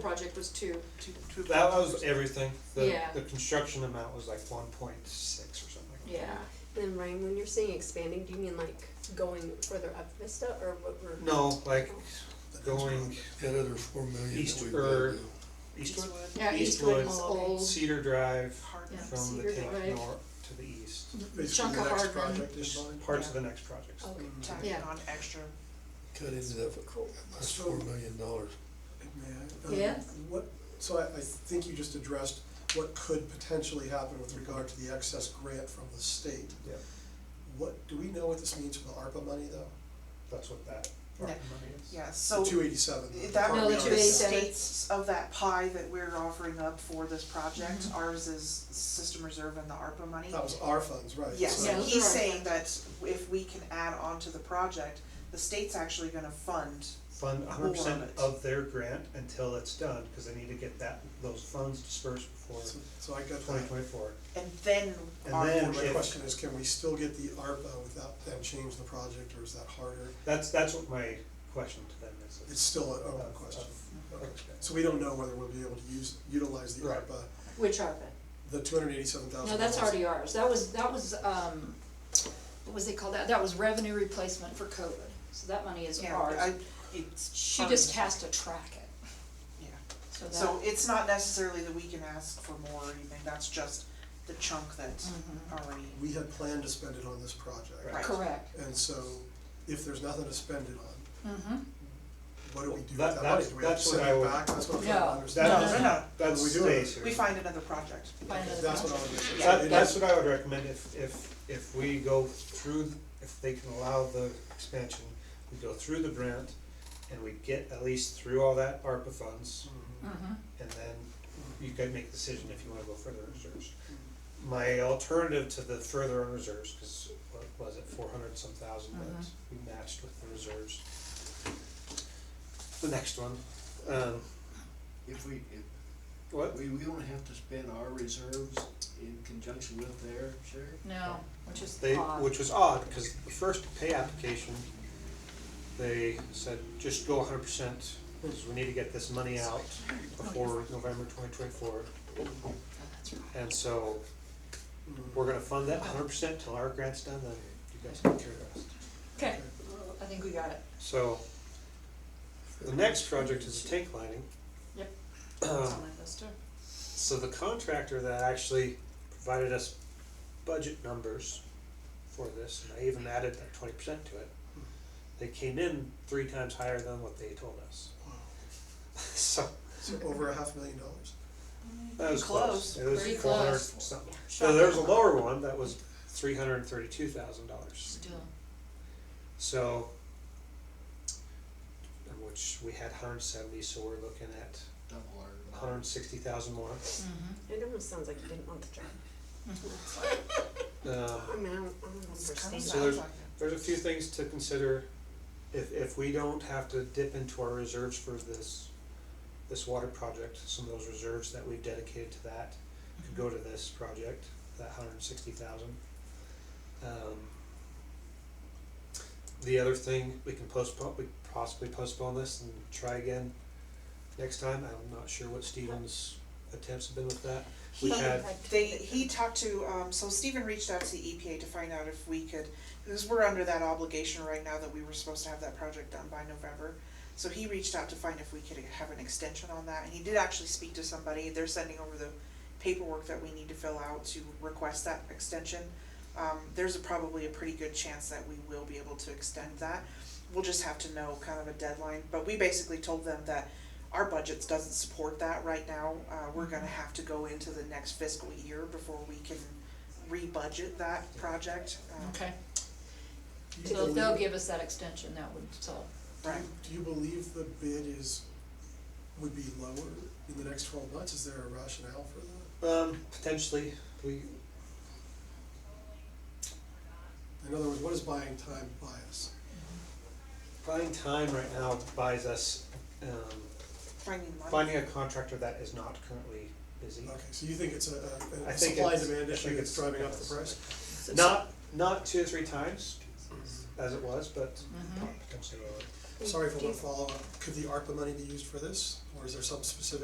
project was two. Two- two- That was everything, the, Yeah. the construction amount was like one point six or something like that. Yeah. Then Ryan, when you're saying expanding, do you mean like going further up Vista or what we're? No, like going That other four million that East- we've er, got to do. Eastwood, Yeah, Eastwood. Eastwood is old. Cedar Drive Hard. Yeah. from the Cedar tank Drive. north to the east. Chunk of hard Basically, the next one. project is mine. Parts of the next projects. Okay, Tack Yeah. Mm-hmm. on extra. Cut into that, cool. that's four million dollars. May I? Um, Yes. What, so I, I think you just addressed what could potentially happen with regard to the excess grant from the state. Yeah. What, do we know what this means for the ARPA money though? That's what that part of the money is. Yeah, so The two eighty-seven. that No, would the be the 287. states of that pie that we're offering up for this project. Mm-hmm. Ours is system reserve and the ARPA money. Oh, That was our funds, right? Yes, so- Yeah. and he's Right. saying that if we can add on to the project, the state's actually gonna fund, Fund More hundred percent of it. of their grant until it's done, cause they need to get that, those funds dispersed before So so I got twenty that. twenty-four. and then And our. then And my if- question is, can we still get the ARPA without them change the project or is that harder? That's, that's what my question to them is. It's still an open Of- question. of- Okay. okay. So we don't know whether we'll be able to use, utilize the Right. ARPA, Which ARPA? the two hundred eighty-seven thousand. No, that's already ours. That was, that was, um, what was it called? That, that was revenue replacement for COVID. So that money is Yeah, I, ours. it's. She ours. just has to track it. Yeah, So so that, it's not necessarily that we can ask for more or anything, that's just the chunk that's already, We had planned to spend it on this project. Right. right. Mm-hmm. correct. And so, if there's nothing to spend it on, Mm-hmm. what do we do with That- that money? that's- Do we have to that's what send I it would- back? That's what I'm No. trying to That understand. No, no, no, That's What are we doing? stays here. we find another project. By another That's what I project. would. understand. That, It that's is- what I would recommend, if, if, if we go through, if they can allow the expansion, we go through the grant, and we get at least through all that ARPA funds, Mhm. Mhm. and then you can make a decision if you wanna go further in reserves. My alternative to the further on reserves, cause what was it, four hundred some thousand that we matched with the reserves. The next one, um, If we, if, what, we, we don't have to spend our reserves in conjunction with their share? No, which is They, odd. which was odd, because the first pay application, they said, just go hundred percent, because we need to get this money out before November twenty twenty-four. Oh, that's right. And so, Mhm. we're gonna fund that hundred percent till our grant's done, then you guys can care of us. Okay, I think we got it. So, the next project is tank lining. Yep. It's Um, on my list too. So the contractor that actually provided us budget numbers for this, and I even added that twenty percent to it, they came in three times higher than what they told us. Wow. So, So over a half million dollars. that was close. Close. It was Pretty four hundred close. something. So there was a lower one that was three hundred and thirty-two thousand dollars. Still. So, and which we had hundred and seventy, so we're looking at Double our. hundred and sixty thousand more. Mm-hmm. It almost sounds like you didn't want the job. Um, I mean, I don't, I don't It's kind understand of So that. there's- sounds like it. There's a few things to consider. If, if we don't have to dip into our reserves for this, this water project, some of those reserves that we've dedicated to that could go to this project, that hundred and sixty thousand. Um, The other thing, we can postpone, we possibly postpone this and try again next time. I'm not sure what Stephen's attempts have been with that. We He- had, They, he talked to, um, so Stephen reached out to the EPA to find out if we could, because we're under that obligation right now that we were supposed to have that project done by November. So he reached out to find if we could have an extension on that, and he did actually speak to somebody, they're sending over the paperwork that we need to fill out to request that extension. Um, there's a probably a pretty good chance that we will be able to extend that, we'll just have to know kind of a deadline, but we basically told them that our budgets doesn't support that right now. Uh, we're gonna have to go into the next fiscal year before we can re-budget that project. Um, Okay, Do you so if they'll believe- give us that extension, that would solve. Right, Do you believe the bid is, would be lower in the next twelve months? Is there a rationale for that? um, potentially, we, In other words, what is buying time bias? buying time right now buys us, um, finding money. Finding a contractor that is not currently busy. Okay, so you think it's a, a- I a think supply it's- I demand issue think that's it's- driving up the price? Not, not two or three times as it was, but Mhm. potentially lower. Sorry for Do you- one follow-up. Could the ARPA money be used for this, or is there some specific